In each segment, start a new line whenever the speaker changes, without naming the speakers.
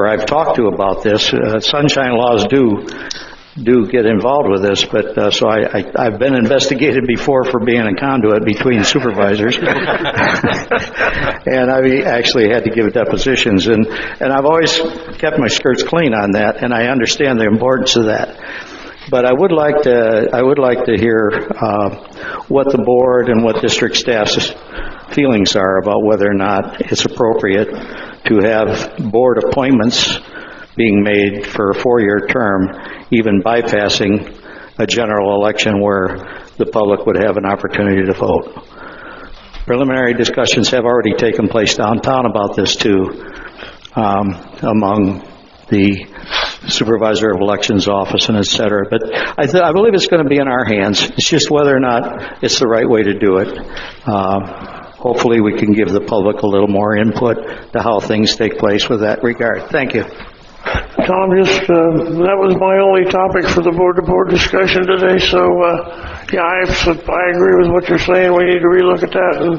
or I've talked to about this, uh, sunshine laws do, do get involved with this, but, uh, so I, I- I've been investigated before for being a conduit between supervisors. And I actually had to give depositions, and, and I've always kept my skirts clean on that, and I understand the importance of that. But I would like to, I would like to hear uh, what the board and what district staff's feelings are about whether or not it's appropriate to have board appointments being made for a four-year term, even bypassing a general election where the public would have an opportunity to vote. Preliminary discussions have already taken place downtown about this too, um, among the supervisor of elections office and et cetera. But I, th- I believe it's going to be in our hands. It's just whether or not it's the right way to do it. Um, Hopefully, we can give the public a little more input to how things take place with that regard. Thank you.
Tom, just, uh, that was my only topic for the board-to-board discussion today, so, uh, yeah, I, I agree with what you're saying, we need to relook at that and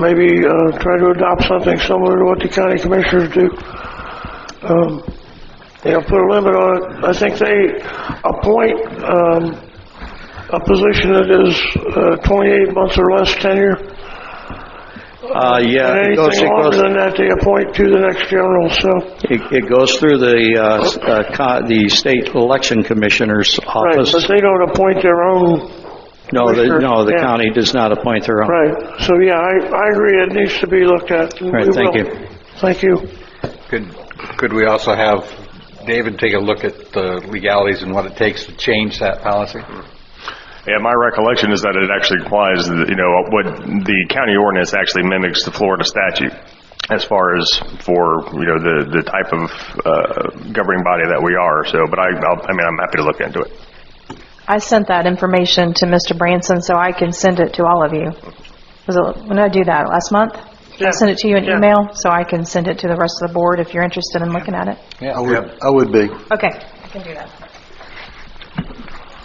maybe, uh, try to adopt something similar to what the county commissioners do. Um, you know, put a limit on it, I think they appoint, um, a position that is, uh, twenty-eight months or less tenure.
Uh, yeah,
And
it goes,
anything
it
longer
goes,
than that, they appoint to the next general, so.
it it goes through the, uh, s- uh, co- the state election commissioner's
Right,
office.
but they don't appoint their own,
No, the,
Commissioner,
no, the
yeah.
county does not appoint their own.
right. So, yeah, I, I agree, it needs to be looked at. and
Right,
we
thank
will.
you.
Thank you.
Could, could we also have David take a look at the legalities and what it takes to change that policy?
Yeah, my recollection is that it actually applies, you know, what the county ordinance actually mimics the Florida statute as far as for, you know, the, the type of uh, governing body that we are, so, but I, I'll- I mean, I'm happy to look into it.
I sent that information to Mr. Branson, so I can send it to all of you. Was it, when did I do that, last month?
Yeah.
I sent it to you in
Yeah.
email, so I can send it to the rest of the board if you're interested in looking at it.
Yeah.
I would, I would be.
Okay, I can do that.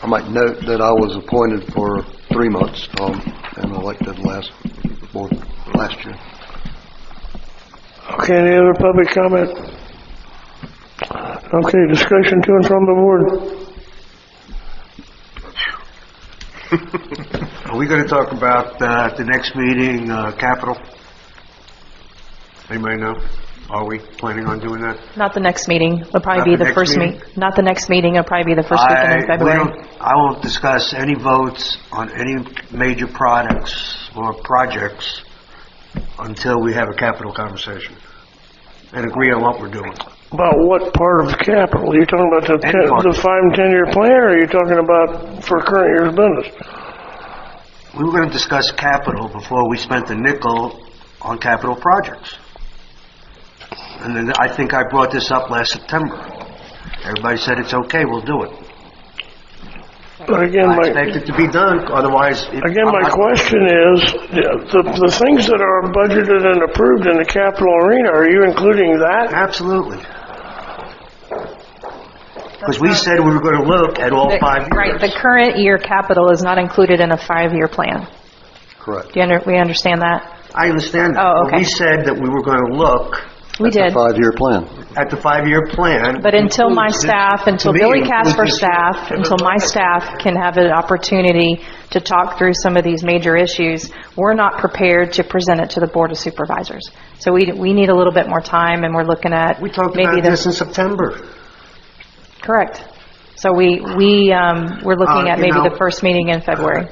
I might note that I was appointed for three months, Tom, and elected last, board last year.
Okay, any other public comment? Okay, discussion to and from the board.
Are we going to talk about, uh, at the next meeting, uh, capital? Anybody know? Are we planning on doing that?
Not the next meeting, it'll probably be
Not the
the
next
first meet,
meeting?
not the next meeting, it'll probably be the first
I
weekend in February.
we don't- I won't discuss any votes on any major products or projects until we have a capital conversation and agree on what we're doing.
About what part of capital? You're talking about the, ten-
Any part.
the five and 10-year plan, or you're talking about for current year's business?
We were going to discuss capital before we spent the nickel on capital projects. And then I think I brought this up last September. Everybody said it's okay, we'll do it.
But again,
I
my...
expect it to be done, otherwise... it-
Again,
I'm
my
not-
question is, the, the things that are budgeted and approved in the capital arena, are you including that?
Absolutely. Because we said we were going to look at all
The-
five
Right, the
years.
current year capital is not included in a five-year plan.
Correct.
Do you under, we understand that?
I understand that.
Oh,
but
okay.
We said that we were going to look
We did.
Five-year plan.
at the five-year plan.
But until my
Includes this-
staff, until
to me,
Billy
it
Casper's
includes this-
staff, until my staff can have an opportunity to talk through some of these major issues, we're not prepared to present it to the Board of Supervisors. So we, we need a little bit more time, and we're looking at
We talked
maybe
about
the...
this in September.
Correct. So we, we, um, we're looking
Uh,
at
you
maybe the
know-
first meeting in February.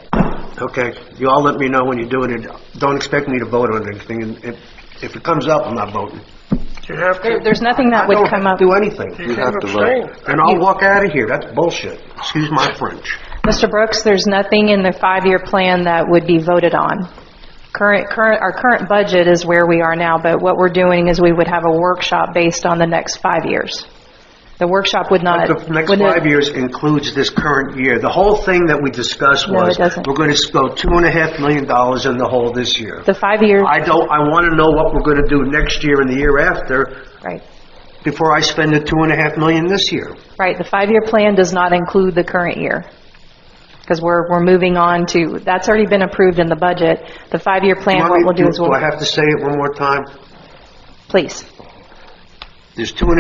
Okay, you all let me know when you're doing it. Don't expect me to vote on anything, and if, if it comes up, I'm not voting.
You have
There-
to
There's nothing that would come
I
up.
don't do anything,
You have to
abstain.
vote.
and I'll walk out of here. That's bullshit. Excuse my French.
Mr. Brooks, there's nothing in the five-year plan that would be voted on. Current, current, our current budget is where we are now, but what we're doing is we would have a workshop based on the next five years. The workshop would not.
The next
would not-
five years includes this current year. The whole thing that we discussed
No, it
was,
doesn't.
we're going to go two and a half million dollars in the hole this year.
The five-year,
I don't, I want to know what we're going to do next year and the year after
right,
before I spend the two and a half million this year.
right, the five-year plan does not include the current year. Because we're, we're moving on to, that's already been approved in the budget. The five-year
You
plan,
want
what
me-
we'll do is we'll,
I have to say it one more time?
please.
there's two and a